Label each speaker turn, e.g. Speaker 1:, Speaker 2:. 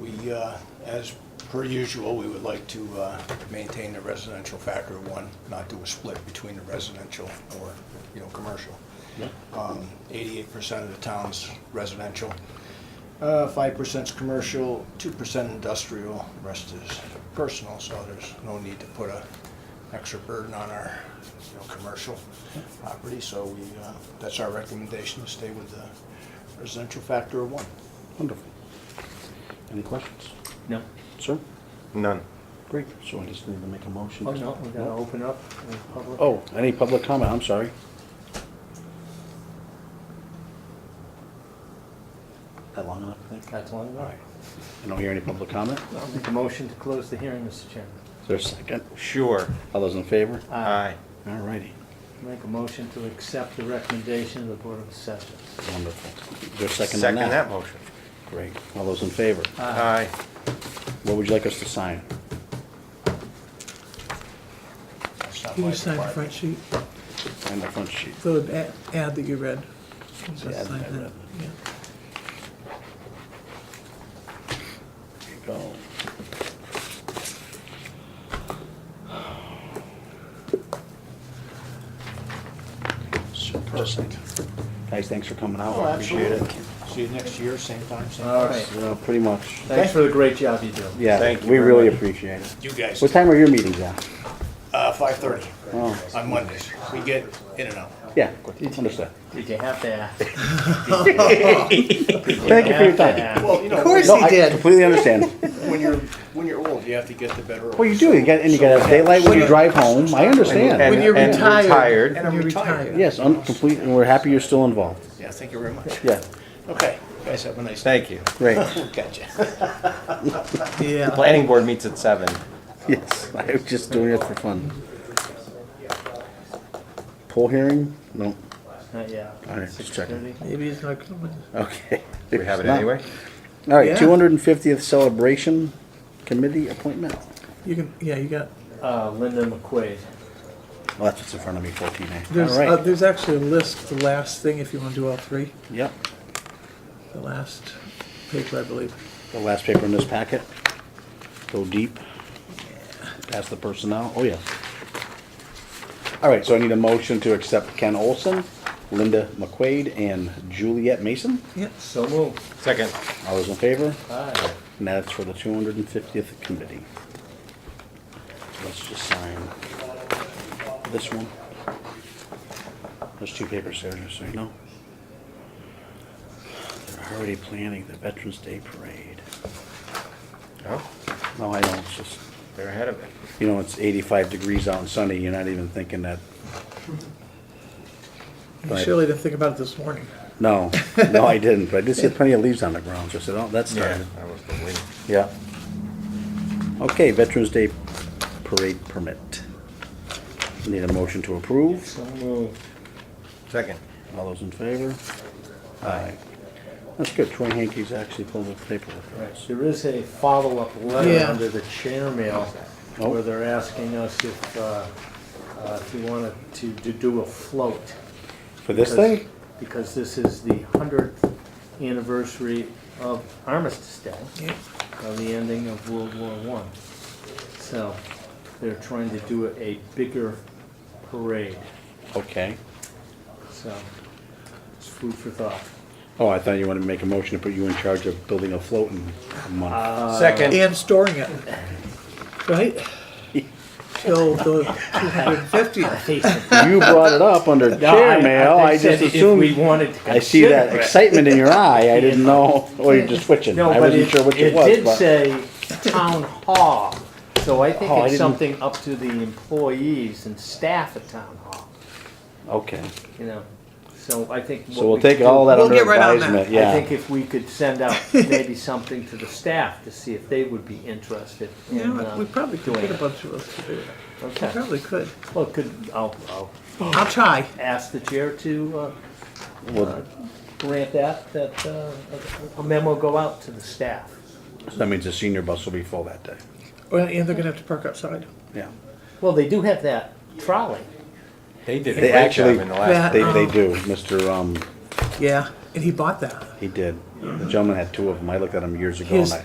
Speaker 1: we, uh, as per usual, we would like to uh, maintain the residential factor of one, not do a split between the residential or, you know, commercial. Um, Eighty-eight percent of the town's residential, uh, five percent's commercial, two percent industrial, rest is personal, so there's no need to put a extra burden on our, you know, commercial property, so we, uh, that's our recommendation, to stay with the residential factor of one.
Speaker 2: Wonderful. Any questions?
Speaker 3: No.
Speaker 2: Sir?
Speaker 4: None.
Speaker 2: Great. So I just need to make a motion.
Speaker 3: Oh, no, we gotta open up the public.
Speaker 2: Oh, any public comment? I'm sorry. That long enough, I think?
Speaker 3: That's long
Speaker 2: All
Speaker 3: enough.
Speaker 2: right. I don't hear any public comment.
Speaker 3: I'll make a motion to close the hearing, Mr. Chairman.
Speaker 2: Is there a second?
Speaker 4: Sure.
Speaker 2: All those in favor?
Speaker 4: Aye.
Speaker 2: All righty.
Speaker 3: Make a motion to accept the recommendation of the Board of Assessors.
Speaker 2: Wonderful. Is there a second on
Speaker 4: Second that
Speaker 2: that?
Speaker 4: motion.
Speaker 2: Great. All those in favor?
Speaker 4: Aye.
Speaker 2: What would you like us to sign?
Speaker 1: That's not
Speaker 5: You
Speaker 1: my
Speaker 5: just signed the
Speaker 1: department.
Speaker 5: front sheet,
Speaker 2: Sign the front sheet.
Speaker 5: the ad- ad that you read. Just
Speaker 2: ad that
Speaker 5: sign
Speaker 2: I read.
Speaker 5: yeah.
Speaker 2: There you go. So perfect. Guys, thanks for coming out.
Speaker 1: Oh,
Speaker 2: I appreciate it.
Speaker 1: absolutely. See you next year, same time, same
Speaker 3: All
Speaker 1: place.
Speaker 3: right.
Speaker 2: Yeah, Pretty much.
Speaker 3: Thanks for the great job you do.
Speaker 2: Yeah,
Speaker 4: Thank you
Speaker 2: we
Speaker 4: very
Speaker 2: really
Speaker 4: much.
Speaker 2: appreciate it.
Speaker 1: You guys,
Speaker 2: What time are your meetings at?
Speaker 1: uh, five thirty
Speaker 2: Oh,
Speaker 1: on Mondays. We get in and out.
Speaker 2: yeah, understood.
Speaker 3: Did you have to ask?
Speaker 2: Thank you for your time.
Speaker 1: Well, you know,
Speaker 2: No, I completely understand.
Speaker 1: when you're, when you're old, you have to get the better.
Speaker 2: Well, you do, you got, and you got to have daylight when you drive home, I
Speaker 4: And-
Speaker 2: understand.
Speaker 5: When you're
Speaker 4: and
Speaker 5: retired.
Speaker 4: retired.
Speaker 1: And I'm
Speaker 5: You're
Speaker 1: retired.
Speaker 2: Yes, I'm complete, and we're happy you're still involved.
Speaker 1: Yeah, thank you very much.
Speaker 2: Yeah,
Speaker 1: Okay, guys, have a nice day.
Speaker 4: Thank you.
Speaker 2: great,
Speaker 1: Gotcha.
Speaker 5: Yeah.
Speaker 4: Planning board meets at seven.
Speaker 2: yes, I was just doing it for fun. Poll hearing? No,
Speaker 3: Yeah.
Speaker 2: All right, just checking.
Speaker 5: Maybe it's not coming.
Speaker 2: okay.
Speaker 4: We have it anyway.
Speaker 2: All right,
Speaker 5: Yeah.
Speaker 2: two hundred and fiftieth celebration committee appointment.
Speaker 5: You can, yeah, you got,
Speaker 3: Uh, Linda McQuaid.
Speaker 2: Well, that's what's in front of me, fourteen A.
Speaker 5: there's, uh,
Speaker 2: All right,
Speaker 5: there's actually a list, the last thing, if you want to do all three,
Speaker 2: yep,
Speaker 5: the last paper, I believe.
Speaker 2: the last paper in this packet. Go deep. Pass the personnel, oh, yes. All right, so I need a motion to accept Ken Olson, Linda McQuaid, and Juliet Mason.
Speaker 5: Yes.
Speaker 3: So moved.
Speaker 4: Second.
Speaker 2: All those in favor?
Speaker 3: Aye.
Speaker 2: And that's for the two hundred and fiftieth committee. Let's just sign this one. There's two papers there, just so you know. They're already planning the Veterans Day Parade.
Speaker 4: Oh,
Speaker 2: No, I don't, it's just,
Speaker 4: they're ahead of it.
Speaker 2: you know, it's eighty-five degrees out and sunny, you're not even thinking that.
Speaker 5: You
Speaker 2: Right.
Speaker 5: surely didn't think about it this morning.
Speaker 2: No, no, I didn't, but I did see plenty of leaves on the ground, so I said, oh, that's started.
Speaker 4: That was the win.
Speaker 2: Yeah. Okay, Veterans Day Parade Permit. Need a motion to approve.
Speaker 3: So moved.
Speaker 4: Second.
Speaker 2: All those in favor? Aye. That's good. Troy Hankey's actually pulled up paperwork for
Speaker 3: Right,
Speaker 2: us.
Speaker 3: There is a follow-up letter
Speaker 5: Yeah.
Speaker 3: under the chair mail
Speaker 2: Oh.
Speaker 3: where they're asking us if, uh, uh, if you wanted to, to do a float.
Speaker 2: For this
Speaker 3: because-
Speaker 2: thing?
Speaker 3: Because this is the hundredth anniversary of Armistice Day,
Speaker 5: Yeah.
Speaker 3: of the ending of World War One. So they're trying to do a bigger parade,
Speaker 2: Okay.
Speaker 3: so it's food for thought.
Speaker 2: Oh, I thought you wanted to make a motion to put you in charge of building a float in a
Speaker 3: Uh,
Speaker 2: month.
Speaker 4: Second.
Speaker 5: And storing it, right? Till the 250th.
Speaker 2: You brought it up under
Speaker 3: No, I-
Speaker 2: chair
Speaker 3: I
Speaker 2: mail. I
Speaker 3: said
Speaker 2: just
Speaker 3: If we
Speaker 2: assumed.
Speaker 3: wanted to
Speaker 2: I see that
Speaker 3: consider it.
Speaker 2: excitement in your eye. I didn't know, oh, you're just switching.
Speaker 3: No,
Speaker 2: I
Speaker 3: but
Speaker 2: wasn't
Speaker 3: it,
Speaker 2: sure which it
Speaker 3: it
Speaker 2: was,
Speaker 3: did
Speaker 2: but-
Speaker 3: say town hall, so I think
Speaker 2: Oh, I
Speaker 3: it's
Speaker 2: didn't-
Speaker 3: something up to the employees and staff at town hall,
Speaker 2: Okay,
Speaker 3: you know, so I think. what
Speaker 2: so we'll
Speaker 3: we
Speaker 2: take
Speaker 3: could
Speaker 2: all
Speaker 3: do-
Speaker 2: that
Speaker 5: We'll
Speaker 2: under
Speaker 5: get right on that.
Speaker 2: advisement,
Speaker 3: I
Speaker 2: yeah.
Speaker 3: think if we could send out maybe something to the staff to see if they would be interested
Speaker 5: You
Speaker 3: in
Speaker 5: know,
Speaker 3: uh,
Speaker 5: what, we probably could
Speaker 3: doing
Speaker 5: get a
Speaker 3: it.
Speaker 5: bunch of us to do it. We
Speaker 3: Okay,
Speaker 5: probably could.
Speaker 3: well, could, I'll, I'll
Speaker 5: I'll try.
Speaker 3: ask the chair to uh,
Speaker 2: Well,
Speaker 3: grant that, that uh, a memo go out to the staff.
Speaker 2: so That means the senior bus will be full that day.
Speaker 5: Well, and they're gonna have to park outside.
Speaker 2: Yeah.
Speaker 3: Well, they do have that trolley.
Speaker 4: They did a
Speaker 2: They
Speaker 4: great job
Speaker 2: actually-
Speaker 4: in the last.
Speaker 2: They, they do. Mr., um,
Speaker 5: Yeah, and he bought that.
Speaker 2: he did. The gentleman had two of them. I looked at them years ago and
Speaker 5: His
Speaker 2: I,